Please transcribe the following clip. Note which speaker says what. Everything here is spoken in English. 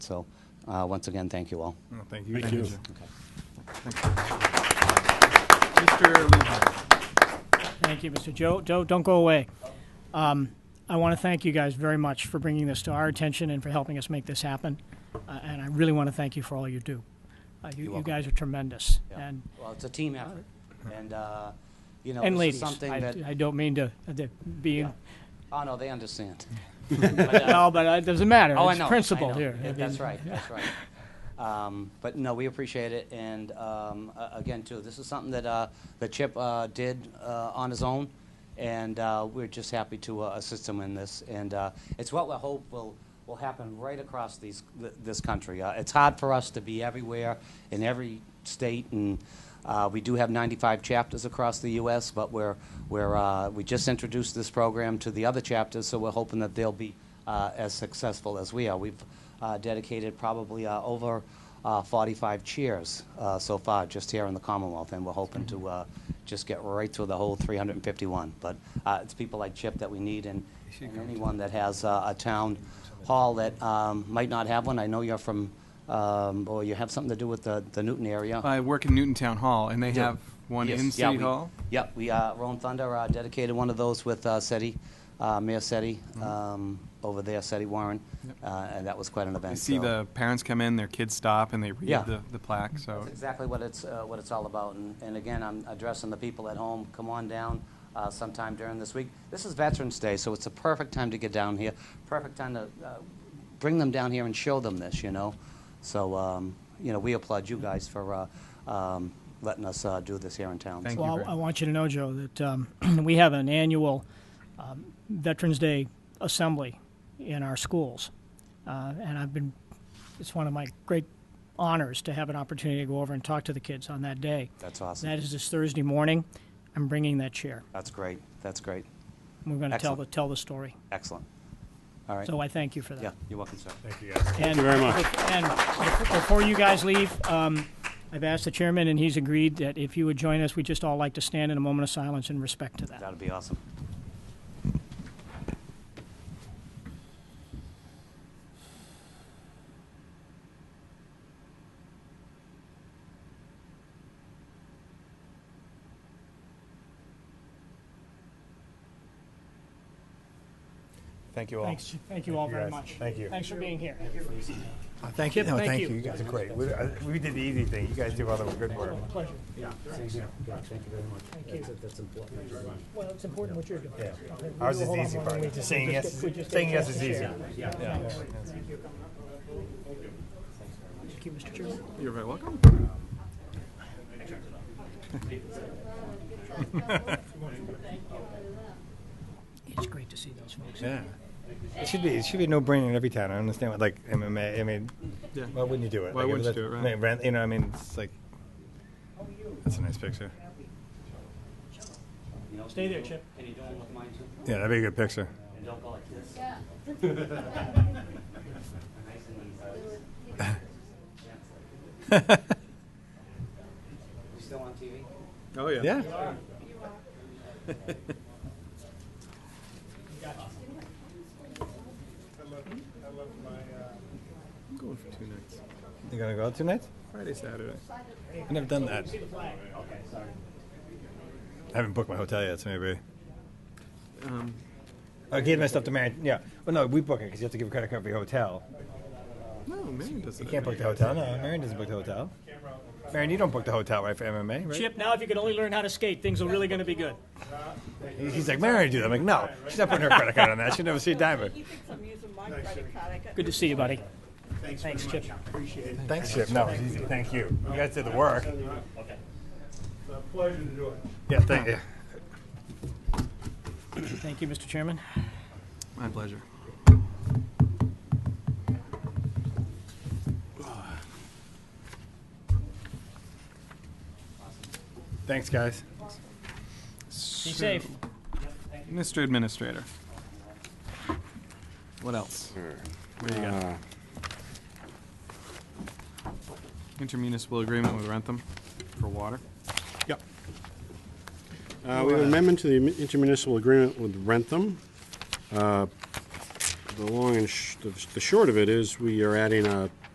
Speaker 1: So, uh, once again, thank you all.
Speaker 2: No, Thank you.
Speaker 3: Thank you.
Speaker 2: Mr. Levi.
Speaker 4: Thank you, Mr. Joe. Joe, don't go away. Um, I want to thank you guys very much for bringing this to our attention and for helping us make this happen. Uh, and I really want to thank you for all you do. Uh, you, you
Speaker 1: welcome.
Speaker 4: guys are tremendous.
Speaker 1: Yeah.
Speaker 4: And,
Speaker 1: Well, it's a team effort, and, uh, you know,
Speaker 4: Uh-huh. and
Speaker 1: this is
Speaker 4: ladies,
Speaker 1: something
Speaker 4: I,
Speaker 1: that,
Speaker 4: I don't mean to, uh, to be,
Speaker 1: Yeah. oh, no, they understand. But, uh,
Speaker 4: no, but it doesn't matter.
Speaker 1: Oh, I
Speaker 4: it's
Speaker 1: know, I
Speaker 4: principle
Speaker 1: know.
Speaker 4: here.
Speaker 1: Yeah,
Speaker 4: I
Speaker 1: That's
Speaker 4: mean,
Speaker 1: right, that's right. Um, But no, we appreciate it, and um, a- again, too, this is something that, uh, that Chip uh, did uh, on his own, and uh, we're just happy to uh, assist him in this, and uh, it's what we hope will, will happen right across these, th- this country. Uh, It's hard for us to be everywhere, in every state, and uh, we do have 95 chapters across the U.S., but we're, we're, uh, we just introduced this program to the other chapters, so we're hoping that they'll be uh, as successful as we are. We've uh, dedicated probably uh, over uh, 45 chairs uh, so far just here in the Commonwealth, and we're hoping to uh, just get right through the whole 351. But uh, it's people like Chip that we need, and, and anyone that has uh, a town hall that um, might not have one. I know you're from, um, or you have something to do with the, the Newton area.
Speaker 5: I work in Newton Town Hall, and they
Speaker 1: Yeah.
Speaker 5: have one
Speaker 1: Yes.
Speaker 5: in
Speaker 1: Yeah,
Speaker 5: City
Speaker 1: we-
Speaker 5: Hall.
Speaker 1: Yep, we, uh, Roan Thunder uh, dedicated one of those with uh, SETI, uh, Mayor SETI,
Speaker 5: Mm-hmm.
Speaker 1: um, over there, SETI Warren, uh, and that was quite an event.
Speaker 5: I see
Speaker 1: so-
Speaker 5: the parents come in, their kids stop, and they read
Speaker 1: Yeah.
Speaker 5: the, the plaque. So
Speaker 1: That's exactly what it's, uh, what it's all about, and, and again, I'm addressing the people at home, come on down uh, sometime during this week. This is Veterans Day, so it's a perfect time to get down here, perfect time to uh, bring them down here and show them this, you know? So, um, you know, we applaud you guys for uh, um, letting us uh, do this here in town.
Speaker 5: Thank
Speaker 1: So-
Speaker 5: you
Speaker 4: Well,
Speaker 5: very
Speaker 4: I I want you to know, Joe, that um, we have an annual um, Veterans Day assembly in our schools. Uh, And I've been, it's one of my great honors to have an opportunity to go over and talk to the kids on that day.
Speaker 1: That's awesome.
Speaker 4: That is this Thursday morning. I'm bringing that chair.
Speaker 1: That's great, that's great,
Speaker 4: We're going to tell the,
Speaker 1: Excellent.
Speaker 4: tell the story.
Speaker 1: excellent. All right,
Speaker 4: So I thank you for that.
Speaker 1: yeah, you're welcome, sir.
Speaker 2: Thank you, guys.
Speaker 4: Thank you very much. And bef- before you guys leave, um, I've asked the chairman, and he's agreed that if you would join us, we'd just all like to stand in a moment of silence in respect to that.
Speaker 1: That'd be awesome.
Speaker 5: Thank you all.
Speaker 4: Thanks, thank you all
Speaker 2: you
Speaker 4: very
Speaker 2: guys.
Speaker 4: much.
Speaker 2: Thank you.
Speaker 4: Thanks for being here.
Speaker 2: Thank you.
Speaker 4: Chip,
Speaker 2: No,
Speaker 4: thank
Speaker 2: thank
Speaker 4: you.
Speaker 2: you. You guys are great. We uh, we did the easy thing. You guys do all the good work.
Speaker 4: Pleasure.
Speaker 2: Thank you very much.
Speaker 4: Well, it's important what you're doing.
Speaker 2: Ours is the easy part. Saying yes, saying yes is easy.
Speaker 4: Thank you, Mr. Chairman.
Speaker 5: You're very welcome.
Speaker 4: It's great to see those folks.
Speaker 2: Yeah. It should be, it should be no brainer in every town. I understand what, like, MMA, I mean,
Speaker 5: Yeah.
Speaker 2: why wouldn't you do it?
Speaker 5: Why
Speaker 2: Like,
Speaker 5: wouldn't you
Speaker 2: that's-
Speaker 5: do it, right?
Speaker 2: like, rent- You know, I mean, it's like, that's a nice picture.
Speaker 4: Stay there, Chip.
Speaker 2: Yeah, that'd be a good picture.
Speaker 1: And don't go like this. Nice and easy. We still on TV?
Speaker 5: Oh yeah.
Speaker 2: Yeah.
Speaker 5: I'm going for two nights.
Speaker 2: You gonna go out two nights?
Speaker 5: Friday, Saturday.
Speaker 2: I've never done that. I haven't booked my hotel yet, so maybe. Oh,
Speaker 5: Um,
Speaker 2: I gave my stuff to Mary. Yeah. Well, no, we book it because you have to give a credit card for your hotel.
Speaker 5: no, Marion does
Speaker 2: You
Speaker 5: it.
Speaker 2: can't book the hotel. No, Marion doesn't book the hotel. Marion, you don't book the hotel, right, for MMA, right?
Speaker 4: Chip, now if you could only learn how to skate, things are really going to be good.
Speaker 2: He's like, Marion, do that. I'm like, no, she's not putting her credit card on that. She'll never see a diamond.
Speaker 6: He thinks I'm using my credit card. I got
Speaker 4: Good to see you, buddy. Thanks, Chip.
Speaker 2: Thanks, Chip. No, it's easy. Thank you. You guys did the work.
Speaker 7: It's a pleasure to do it.
Speaker 2: Yeah, thank you.
Speaker 4: Thank you, Mr. Chairman.
Speaker 5: My pleasure.
Speaker 2: Thanks, guys.
Speaker 4: Be safe.
Speaker 5: Mr. Administrator. What else? What do you got? Intermunicipal agreement with Rentham for water.
Speaker 7: Yep. Uh, We have an amendment to the intermunicipal agreement with Rentham. Uh, the long and sh- the the short of it is, we are adding a